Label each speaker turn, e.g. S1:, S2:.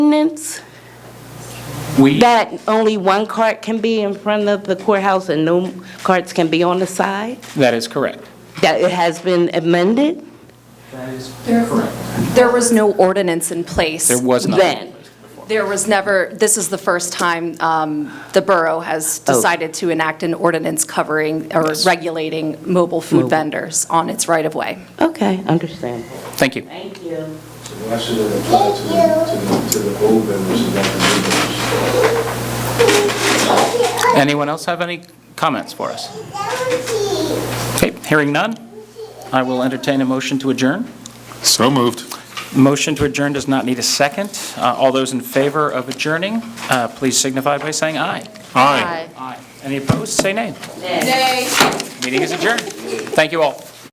S1: ordinance
S2: We,
S1: that only one cart can be in front of the courthouse and no carts can be on the side?
S2: that is correct.
S1: That it has been amended
S3: There was no ordinance in place.
S2: There was not.
S1: then?
S3: There was never, this is the first time um, the borough has
S1: Oh.
S3: decided to enact an ordinance covering or regulating mobile food vendors on its right-of-way.
S1: Okay, understand.
S2: Thank you.
S1: Thank you.
S4: Why should it apply to the, to the, to the old members and not the new members?
S2: Anyone else have any comments for us? Okay, hearing none, I will entertain a motion to adjourn.
S5: So moved.
S2: Motion to adjourn does not need a second. Uh, All those in favor of adjourning, uh, please signify by saying aye.
S5: Aye.
S2: Aye. Any opposed, say nay. Nay. Meeting is adjourned. Thank you all.